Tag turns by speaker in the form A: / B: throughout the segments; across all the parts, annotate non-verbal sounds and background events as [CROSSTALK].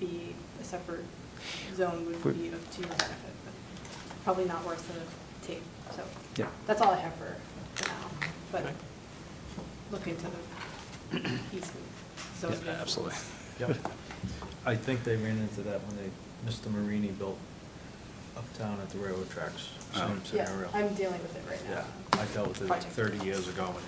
A: be a separate zone would be of to your benefit, but probably not worth the tape, so.
B: Yeah.
A: That's all I have for for now, but look into the easement
B: Yeah,
A: zone.
B: Absolutely.
C: Yep. I think they ran into that when they, Mr. Marini built uptown at the railroad tracks,
B: Oh.
C: same
A: Yeah,
C: scenario.
A: I'm dealing with it right now.
C: Yeah, I dealt with it like
A: Project.
C: thirty years ago and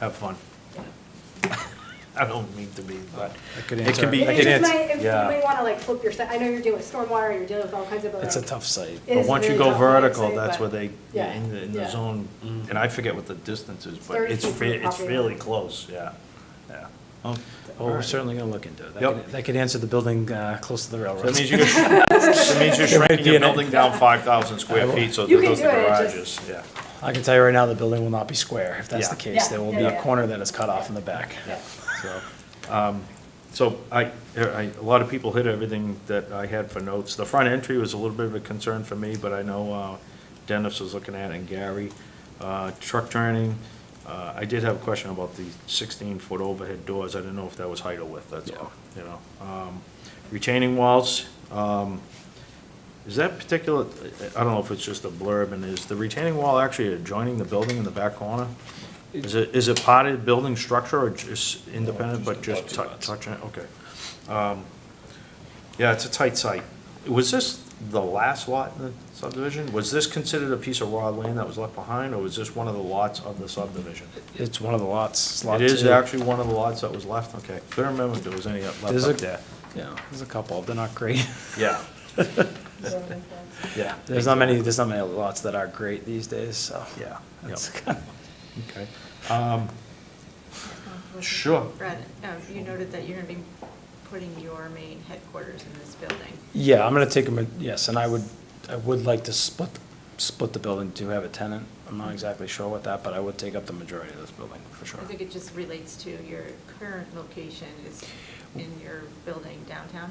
C: have fun.
A: Yeah.
C: [LAUGHS] I don't mean to be, but
B: I
C: it
B: could
C: can
B: answer-
C: be,
B: I
C: it
B: could
C: is,
B: answer-
A: You may
C: yeah.
A: want to like flip your, se- I know you're dealing with stormwater, you're dealing with all kinds of other.
B: It's a tough site.
A: It
C: But
A: is
C: once you
A: really
C: go
A: tough, like I
C: vertical,
A: say,
C: that's
A: but-
C: where they,
A: Yeah,
C: in the, in the
A: yeah.
C: zone,
B: Mhm.
C: and I forget what the distance is,
A: It's
C: but
A: 30
C: it's,
A: feet
C: re-
A: from the
C: it's
A: property
C: really
A: line.
C: close, yeah, yeah. Oh,
B: Well, we're certainly going to look into it. That
C: Yep.
B: could- That could answer the building uh, close to the
C: So
B: railroad.
C: That means you, that means you're
A: [LAUGHS]
C: shrinking your building down five thousand square feet, so
A: You
C: that
A: can
C: those
A: do
C: are
A: it, it's
C: garages,
A: just-
C: yeah.
B: [LAUGHS] I can tell you right now, the building will not be square. If that's
C: Yeah.
B: the case,
A: Yeah,
B: there will
A: yeah,
B: be a
A: yeah.
B: corner that is cut off in the back.
A: Yeah.
C: So, um, so I, I, a lot of people hit everything that I had for notes. The front entry was a little bit of a concern for me, but I know uh, Dennis was looking at it and Gary. Uh, Truck turning, uh, I did have a question about the sixteen-foot overhead doors. I didn't know if that was height or width, that's all, you know. Um, Retaining walls, um, is that particular, I don't know if it's just a blurb, and is the retaining wall actually adjoining the building in the back corner? Is it, is it part of the building structure or just independent, but just tou- touching it, okay. Um, Yeah, it's a tight site. Was this the last lot in the subdivision? Was this considered a piece of raw land that was left behind, or was this one of the lots of the subdivision?
B: It's one of the lots. it's lot
C: It is
B: two.
C: actually one of the lots that was left, okay. Couldn't remember if there was any left
B: There's a-
C: up there.
B: Yeah, there's a couple. They're not great.
C: Yeah,
A: Zone of
C: [LAUGHS]
A: influence.
C: yeah.
B: [LAUGHS] There's not many, there's not many lots that are great these days, so.
C: Yeah,
B: That's
C: yeah.
B: kind
C: okay. Um, Sure.
D: Brad, um, you noted that you're going to be putting your main headquarters in this building.
B: Yeah, I'm gonna take them, yes, and I would, I would like to split, split the building to have a tenant. I'm not exactly sure what that, but I would take up the majority of this building, for sure.
D: I think it just relates to your current location is in your building downtown.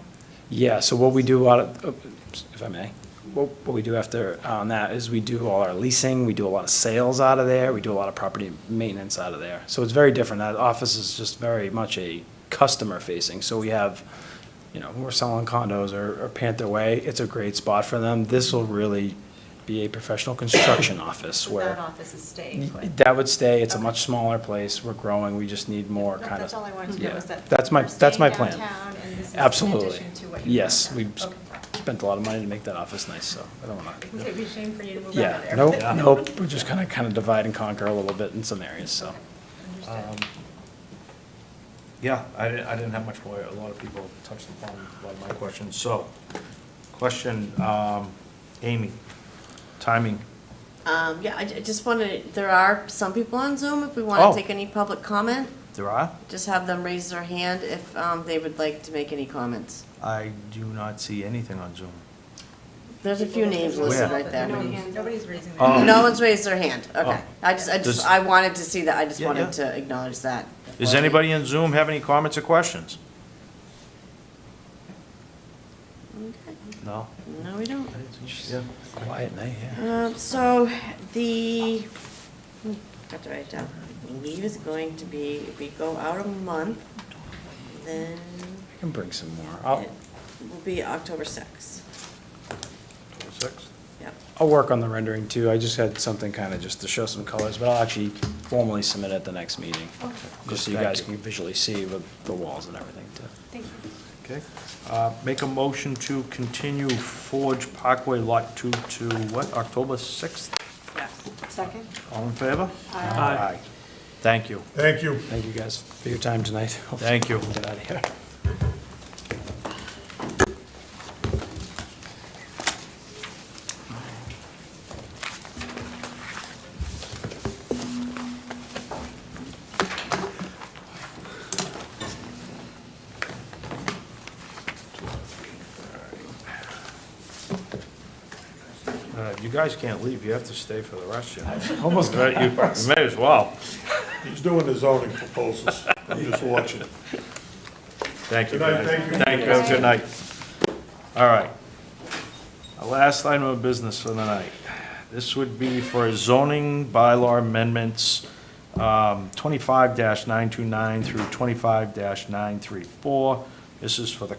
B: Yeah, so what we do out of, oops, if I may, what, what we do after, on that is we do all our leasing, we do a lot of sales out of there, we do a lot of property maintenance out of there. So it's very different. That office is just very much a customer facing, so we have, you know, we're selling condos or, or Panther Way, it's a great spot for them. This will really be a professional
D: [COUGHS]
B: construction office
D: So
B: where.
D: That office is staying put.
B: That would stay, it's a
D: Okay.
B: much smaller place, we're growing, we just need more
D: No,
B: kind of.
D: That's all I wanted to
B: Yeah.
D: know is that.
B: That's my,
D: we're
B: that's my
D: staying
B: plan.
D: downtown and this is in
B: Absolutely.
D: addition to what you're
B: Yes, we
D: doing now.
B: spent a lot of money to make that office nice, so I don't wanna.
D: Okay. It'd be a shame for you to move out of
B: Yeah,
D: there.
B: nope,
D: but-
B: nope, we're just gonna kind of divide and conquer a little bit in some areas, so.
D: Okay,
C: Um,
D: Understood.
C: Yeah, I didn't, I didn't have much more, a lot of people touched upon a lot of my questions, so, question, um, Amy, timing,
E: Um, yeah, I ju- I just wanted, there are some people on Zoom, if we want
C: Oh.
E: to take any public comment,
C: there are?
E: just have them raise their hand if, um, they would like to make any comments.
C: I do not see anything on Zoom.
E: There's a few names listed
C: Where?
E: right there.
D: No hands, Nobody's raising their.
C: Oh.
D: hand.
E: No one's raised their hand, okay.
C: Oh.
E: I just, I
C: Does-
E: just, I wanted to see that, I just
C: Yeah, yeah.
E: wanted to acknowledge that.
C: Does anybody in Zoom have any comments or questions? No?
E: No, we don't.
C: Yeah.
B: Quiet night, yeah.
E: Um, so the, hmm, got to write it down. I believe it's going to be, if we go out a month, then
B: I can bring some more. I'll,
E: it will be October sixth.
C: Six?
E: Yep.
B: I'll work on the rendering too, I just had something kind of just to show some colors, but I'll actually formally submit at the next meeting.
D: Oh,
B: Just so you
C: Thank
B: guys
C: you.
B: can visually see with the walls and everything too.
A: Thank you.
C: Okay, uh, make a motion to continue Forge Parkway Lot Two to, what, October sixth?
E: Yeah.
A: Second?
C: All in favor?
A: Aye.
C: Aye. Thank you.
F: Thank you.
B: Thank you guys for your time tonight.
C: Thank you.
B: Get out of here.
C: Uh, You guys can't leave, you have to stay for the rest, you know.
F: [LAUGHS]
B: Almost
C: You you may as well.
F: He's doing the zoning proposals. I'm just watching.
C: Thank you,
F: Good night,
C: guys.
F: thank you.
C: Thank you, good night. All right. Our last item of business for the night. This would be for zoning bylaw amendments, um, twenty-five nine two nine through twenty-five nine three four. This is for the